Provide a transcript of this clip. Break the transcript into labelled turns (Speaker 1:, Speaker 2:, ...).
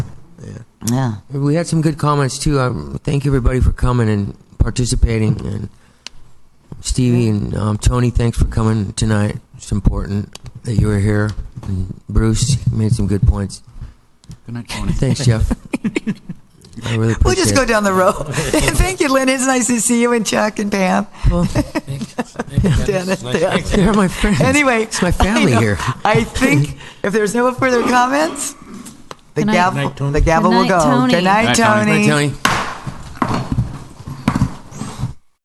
Speaker 1: Yeah.
Speaker 2: We had some good comments too. Um, thank you everybody for coming and participating, and Stevie and um, Tony, thanks for coming tonight. It's important that you were here. And Bruce you made some good points.
Speaker 3: Good night, Tony.
Speaker 2: Thanks, Jeff. I really appreciate.
Speaker 1: We'll just go
Speaker 2: it.
Speaker 1: down the road. Thank you, Lynn. It's nice to see you and Chuck and Pam.
Speaker 2: Well,
Speaker 1: Dennis, yeah.
Speaker 2: They're my friends.
Speaker 1: Anyway.
Speaker 2: it's my
Speaker 1: I
Speaker 2: family
Speaker 1: know.
Speaker 2: here.
Speaker 1: I think if there's no further comments, the
Speaker 4: Good night.
Speaker 1: gavel, the gavel
Speaker 4: Good
Speaker 1: will
Speaker 4: night,
Speaker 1: go.
Speaker 4: Tony.
Speaker 1: Good night,
Speaker 3: Good night,
Speaker 2: Hi,
Speaker 1: Tony.
Speaker 2: Tony.